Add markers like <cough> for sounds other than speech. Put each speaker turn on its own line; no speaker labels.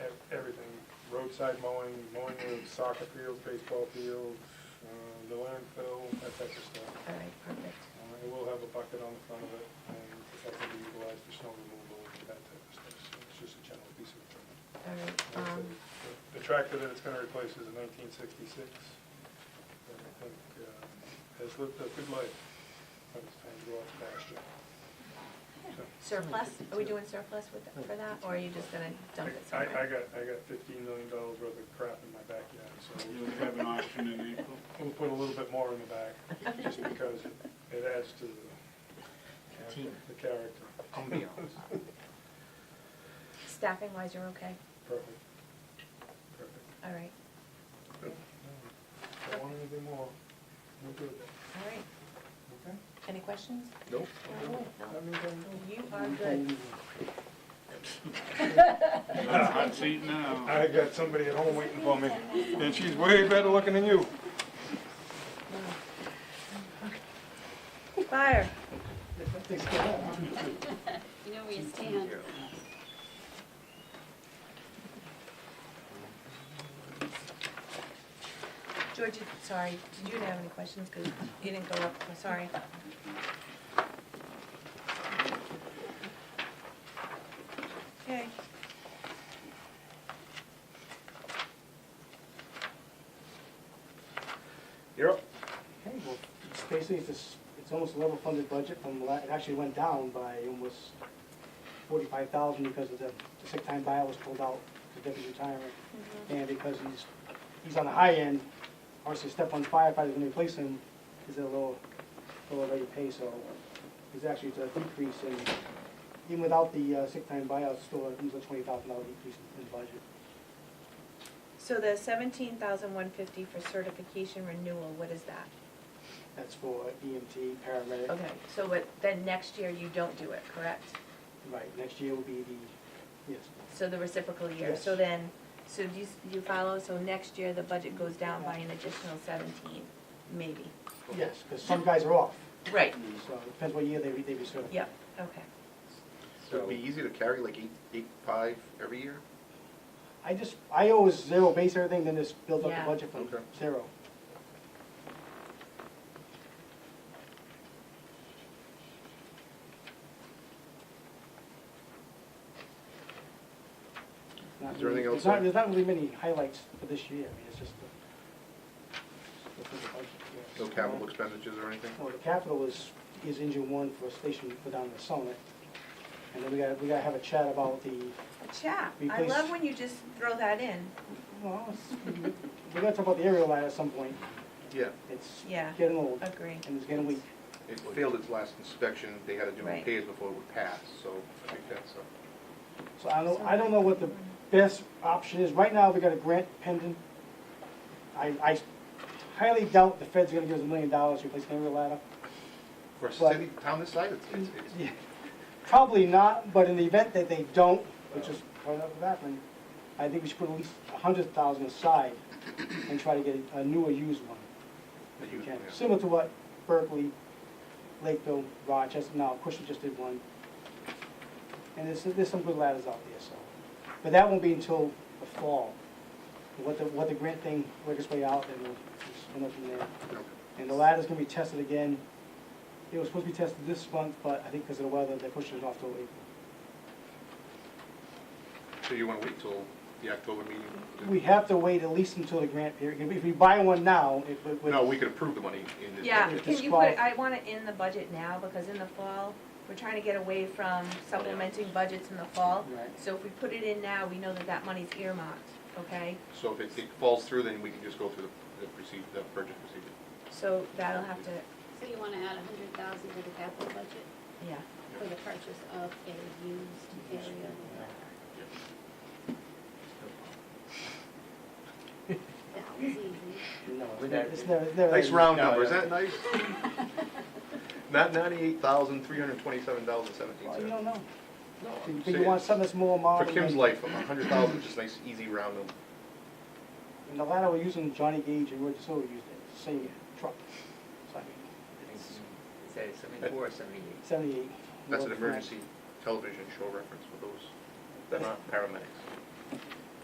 roadside mowing, mowing of soccer fields, baseball fields, uh, the landfill, that type of stuff.
All right, perfect.
Uh, It will have a bucket on the front of it, and it's going to be utilized for snow removal and that type of stuff. So It's just a general piece of equipment.
All right,
Like I said,
um,
The the tractor that it's going to replace is a 1966. that I think uh, has lived a good life, but it's time to go off pasture. So-
um, surplus, are we doing surplus with, for that, or are you just gonna dump it
I,
somewhere?
I got, I got fifteen million dollars worth of crap in my backyard, so
You'll have an auction in April.
we'll put a little bit more in the back, just because it adds to the,
Team.
the character.
Ambiance.
Staffing wise, you're okay?
Perfect. Perfect.
All right,
No, Don't want anything more. We're good.
all right.
Okay?
Any questions?
Nope.
No.
That means I'm
You are good. <laughs>
good.
You're on a
Uh,
hot seat now.
<laughs> I got somebody at home waiting for me, and she's way better looking than you.
Fire.
You know where you stand.
George, you- sorry, did you have any questions? Because you didn't go up, I'm sorry. Okay.
You're up.
Okay, well, it's basically, it's, this- it's almost a level funded budget from, la- it actually went down by almost forty-five thousand because of the the sick time buyout was pulled out, the deputy retiring. And because he's, he's on the high end, obviously step on firefighters when they replace him, is at a lower, lower rate of pay, so it's actually it's a decrease in, even without the uh, sick time buyout, it's still, a- it's a twenty thousand dollar decrease in- in budget.
So the seventeen thousand one fifty for certification renewal, what is that?
That's for EMT, paramedic.
Okay, so what, then next year you don't do it, correct?
Right, next year will be the, yes,
So the reciprocal year,
Yes.
so then, so do you, do you follow, so next year the budget goes down by an additional seventeen, maybe?
Yes, because some guys are off,
Right,
Mm-hmm.
so it depends what year they, they reserve.
yep, okay.
It'd be easy to carry like eight, eight, five every year?
I just, I always zero base everything, then just build up
Yeah.
the budget from
Okay.
zero. Not
Is there
really-
anything
There's
else,
not,
uh,
there's not really many highlights for this year, I mean, it's just. the- the full budget, yes.
No capital expenditures or anything?
Well, the capital is, is engine one for a station for down in the summit. And then we gotta, we gotta have a chat about the,
Chat, I
Replace-
love when you just throw that in,
well, it's- we gotta talk about the aerial line at some point.
Yeah,
It's
Yeah.
getting old
agree.
and it's getting weak.
it failed its last inspection, they had to do
Right.
repairs before it would pass, so I think that's, uh,
So I don't, I don't know what the best option is. Right now, we got a grant pending. I, I highly doubt the Fed's gonna give us a million dollars to replace an aerial ladder.
for a
But-
city, town this size, it's, it's, it's-
Probably not, but in the event that they don't, which is probably not gonna happen, I think we should put at least a hundred thousand aside and try to get a newer used one. if we
Used
can.
one, yeah.
Similar to what Berkeley, Lakeville, Rochester, now Cushing just did one. And there's, there's some good ladders out there, so. But that won't be until the fall. What the, what the grant thing, work its way out, and we'll just spin up from there.
okay.
And the ladder's gonna be tested again. It was supposed to be tested this month, but I think because of the weather, they pushed it off till April.
So you wanna wait till the October meeting? to-
We have to wait at least until the grant period. If we buy one now, it would. would-
No, we could approve the money in this.
Yeah,
budget.
can you put, I want it in the budget now, because in the fall, we're trying to get away from supplementing budgets in the fall.
Right.
So if we put it in now, we know that that money's earmarked, okay?
So if it, it falls through, then we can just go through the, the procedure, the purchase procedure.
So that'll have to,
So you want to add a hundred thousand to the capital budget
yeah,
for the purchase of a used area? That was easy.
No,
Would
it's never-
that-
it's never, it's never.
Nice round
No,
number, is
no.
that nice?
<laughs>
Not ninety-eight thousand, three hundred twenty-seven dollars and seventeen
Well, you
cents.
don't know. But
saying-
you want something that's more
For
modern.
Kim's
than-
life, a hundred thousand is just nice, easy round number.
And the ladder we're using, Johnny Gage and Roger Silver used it, same truck. So I mean, it's
Is that seventy-four or seventy-eight?
Seventy-eight.
That's an
Well,
emergency television show reference for those that aren't paramedics.